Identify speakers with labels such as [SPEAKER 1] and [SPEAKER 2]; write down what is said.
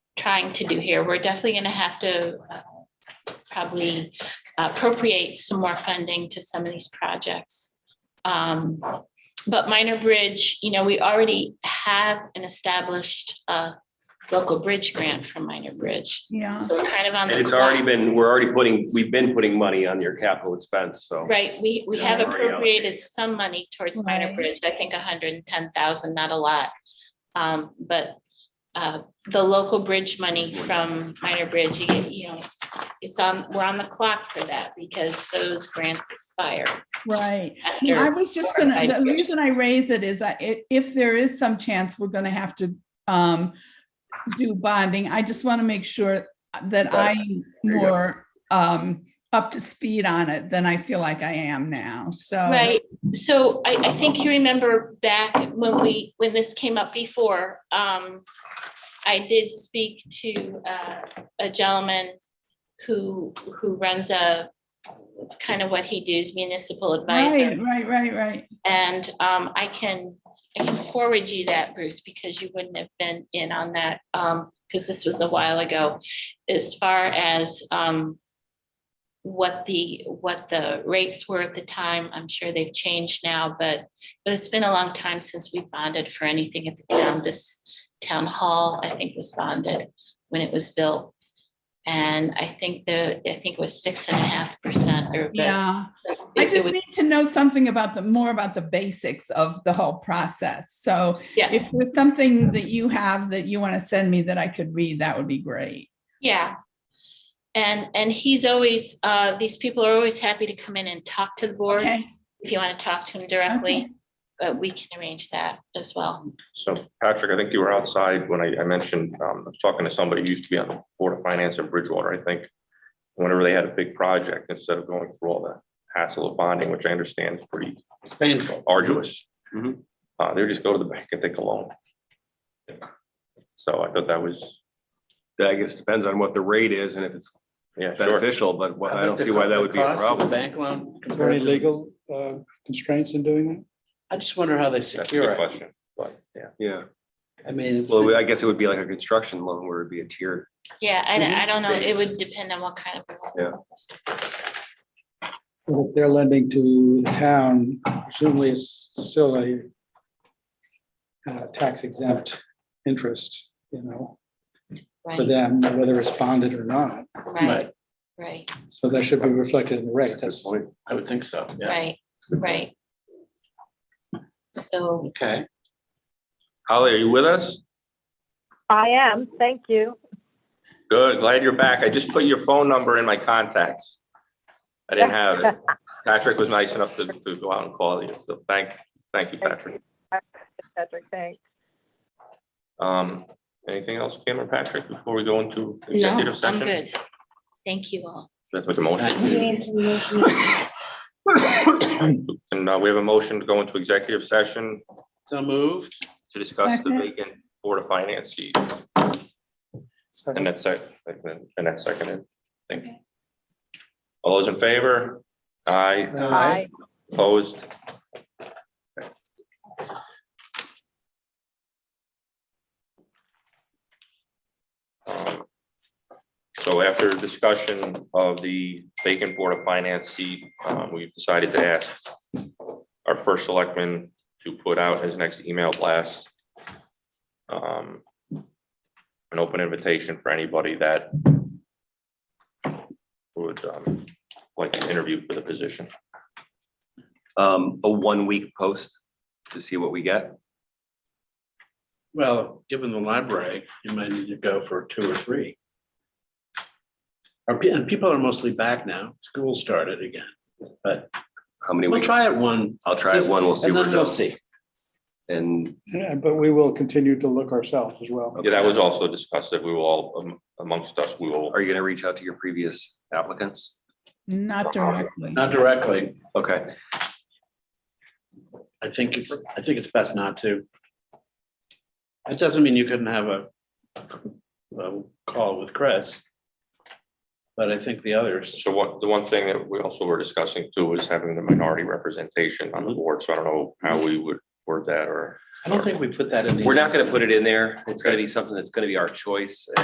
[SPEAKER 1] trying to do here. We're definitely going to have to uh, probably appropriate some more funding to some of these projects. Um, But Minor Bridge, you know, we already have an established uh, local bridge grant from Minor Bridge.
[SPEAKER 2] Yeah,
[SPEAKER 1] So we're kind of on the.
[SPEAKER 3] And it's already
[SPEAKER 1] clock.
[SPEAKER 3] been, we're already putting, we've been putting money on your capital expense, so.
[SPEAKER 1] Right, we, we
[SPEAKER 3] Yeah,
[SPEAKER 1] have
[SPEAKER 3] we've already
[SPEAKER 1] appropriated
[SPEAKER 3] allocated.
[SPEAKER 1] some money towards minor
[SPEAKER 2] Right.
[SPEAKER 1] bridge, I think hundred and ten thousand, not a lot. Um, but, uh, the local bridge money from minor bridge, you get- you know, it's on, we're on the clock for that because those grants expire.
[SPEAKER 2] right.
[SPEAKER 1] after-
[SPEAKER 2] I was just
[SPEAKER 1] four or
[SPEAKER 2] gonna,
[SPEAKER 1] five
[SPEAKER 2] the
[SPEAKER 1] years.
[SPEAKER 2] reason I raise it is that i- if there is some chance we're gonna have to um do bonding, I just want to make sure that
[SPEAKER 3] Right.
[SPEAKER 2] I'm
[SPEAKER 3] There you go.
[SPEAKER 2] more um up to speed on it than I feel like I am now, so.
[SPEAKER 1] Right, so I, I think you remember back when we, when this came up before, um, I did speak to, uh, a gentleman who, who runs a, it's kind of what he does, municipal advisor.
[SPEAKER 2] Right, right, right, right.
[SPEAKER 1] And, um, I can, I can forward you that, Bruce, because you wouldn't have been in on that, um, because this was a while ago. As far as, um, what the, what the rates were at the time, I'm sure they've changed now, but, but it's been a long time since we bonded for anything at the town. This town hall, I think, was bonded when it was built. And I think the, I think it was six and a half percent or.
[SPEAKER 2] Yeah.
[SPEAKER 1] it-
[SPEAKER 2] I
[SPEAKER 1] it
[SPEAKER 2] just
[SPEAKER 1] was-
[SPEAKER 2] need to know something about the, more about the basics of the whole process. So
[SPEAKER 1] Yeah.
[SPEAKER 2] if there's something that you have that you want to send me that I could read, that would be great.
[SPEAKER 1] Yeah. And, and he's always, uh, these people are always happy to come in and talk to the board
[SPEAKER 2] Okay.
[SPEAKER 1] if you want to talk to him
[SPEAKER 2] Okay.
[SPEAKER 1] directly, but we can arrange that as well.
[SPEAKER 4] So Patrick, I think you were outside when I, I mentioned, um, I was talking to somebody who used to be on the Board of Finance in Bridgewater, I think. Whenever they had a big project, instead of going through all the hassle of bonding, which I understand is pretty
[SPEAKER 3] It's painful.
[SPEAKER 4] arduous.
[SPEAKER 3] Mhm.
[SPEAKER 4] Uh, they would just go to the bank and take a loan. So I thought that was,
[SPEAKER 5] I guess depends on what the rate is and if it's
[SPEAKER 4] yeah, sure.
[SPEAKER 5] beneficial, but what- I don't see why that would be a problem.
[SPEAKER 3] Bank loan.
[SPEAKER 6] Are there any legal uh, constraints in doing that?
[SPEAKER 3] I just wonder how they
[SPEAKER 4] That's a good
[SPEAKER 3] secure it.
[SPEAKER 4] question, but yeah.
[SPEAKER 5] Yeah,
[SPEAKER 3] I mean. it's-
[SPEAKER 5] well, I guess it would be like a construction loan where it'd be a tiered.
[SPEAKER 1] Yeah, I, don't- I don't know. It
[SPEAKER 5] Days.
[SPEAKER 1] would depend on what kind of.
[SPEAKER 5] Yeah.
[SPEAKER 6] Well, If they're lending to the town, presumably it's still a uh, tax exempt interest, you know, for
[SPEAKER 1] Right,
[SPEAKER 6] them, whether it's bonded or not.
[SPEAKER 1] right, right,
[SPEAKER 6] So that should be reflected in the rate. That's
[SPEAKER 3] I would think so, yeah.
[SPEAKER 1] right, right. So,
[SPEAKER 3] Okay.
[SPEAKER 4] Holly, are you with us?
[SPEAKER 7] I am, thank you.
[SPEAKER 4] Good, glad you're back. I just put your phone number in my contacts. I didn't have it. Patrick was nice enough to, to go out and call you, so thank, thank you, Patrick.
[SPEAKER 7] Patrick, thanks.
[SPEAKER 4] Um, anything else, Kim or Patrick, before we go into
[SPEAKER 1] no,
[SPEAKER 4] executive
[SPEAKER 1] I'm
[SPEAKER 4] session?
[SPEAKER 1] good. Thank you all.
[SPEAKER 4] Let's make a motion.
[SPEAKER 3] Thank
[SPEAKER 4] And uh, we have a motion to go into executive session
[SPEAKER 3] So moved.
[SPEAKER 4] to discuss the
[SPEAKER 2] Second.
[SPEAKER 4] vacant Board of Finance seat. And
[SPEAKER 6] uh,
[SPEAKER 4] that's sec, and that's seconded, I think. All those in favor? Aye,
[SPEAKER 7] Bye.
[SPEAKER 4] opposed? Um, So after discussion of the vacant Board of Finance seat, um, we've decided to ask our first selectman to put out his next email blast. um, An open invitation for anybody that would um, like to interview for the position.
[SPEAKER 5] Um, a one-week post to see what we get.
[SPEAKER 3] Well, given the library, you might need to go for two or three. Or pe- And people are mostly back now. School started again.
[SPEAKER 5] How many
[SPEAKER 3] We'll
[SPEAKER 5] weeks?
[SPEAKER 3] try it one
[SPEAKER 5] I'll try it one, we'll see
[SPEAKER 3] and
[SPEAKER 5] where
[SPEAKER 3] then
[SPEAKER 5] it
[SPEAKER 3] we'll
[SPEAKER 5] goes.
[SPEAKER 3] see.
[SPEAKER 5] And
[SPEAKER 6] Yeah, But we will continue to look ourselves as well.
[SPEAKER 4] Yeah, that was also discussed that we will all um, amongst us, we will.
[SPEAKER 5] are you gonna reach out to your previous applicants?
[SPEAKER 2] Not directly.
[SPEAKER 3] Not directly.
[SPEAKER 5] Okay,
[SPEAKER 3] I think it's, I think it's best not to. It doesn't mean you couldn't have a, a call with Chris. But I think the others,
[SPEAKER 4] So what, the one thing that we also were discussing too was having the minority representation on the board. So I don't know how we would word that or.
[SPEAKER 3] I don't think we put that in the.
[SPEAKER 5] we're not gonna put it in there. It's gonna be something that's gonna be our choice